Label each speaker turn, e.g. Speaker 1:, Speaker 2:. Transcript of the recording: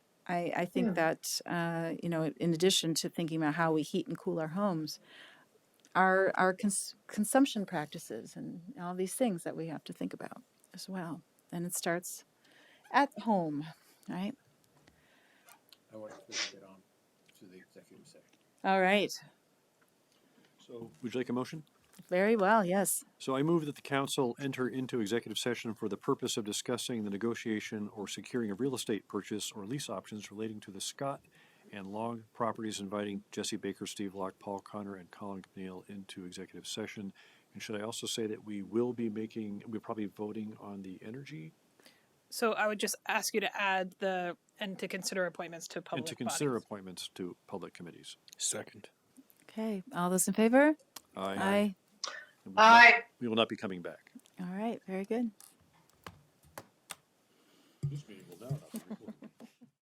Speaker 1: I, I think that, uh, you know, in addition to thinking about how we heat and cool our homes, our, our cons- consumption practices and all these things that we have to think about as well. And it starts at home, right?
Speaker 2: I want to get on to the executive session.
Speaker 1: All right.
Speaker 2: So
Speaker 3: Would you like a motion?
Speaker 1: Very well. Yes.
Speaker 3: So I move that the council enter into executive session for the purpose of discussing the negotiation or securing of real estate purchase or lease options relating to the Scott and Long properties inviting Jesse Baker, Steve Locke, Paul Connor, and Colin McNeil into executive session. And should I also say that we will be making, we're probably voting on the energy
Speaker 4: So I would just ask you to add the, and to consider appointments to public
Speaker 3: and to consider
Speaker 4: bodies.
Speaker 3: appointments to public committees.
Speaker 2: second.
Speaker 1: Okay. All those in favor? Aye.
Speaker 3: And we will not-
Speaker 5: Aye.
Speaker 3: We will not be coming back.
Speaker 1: All right. Very good.
Speaker 2: This meeting will now not be recorded.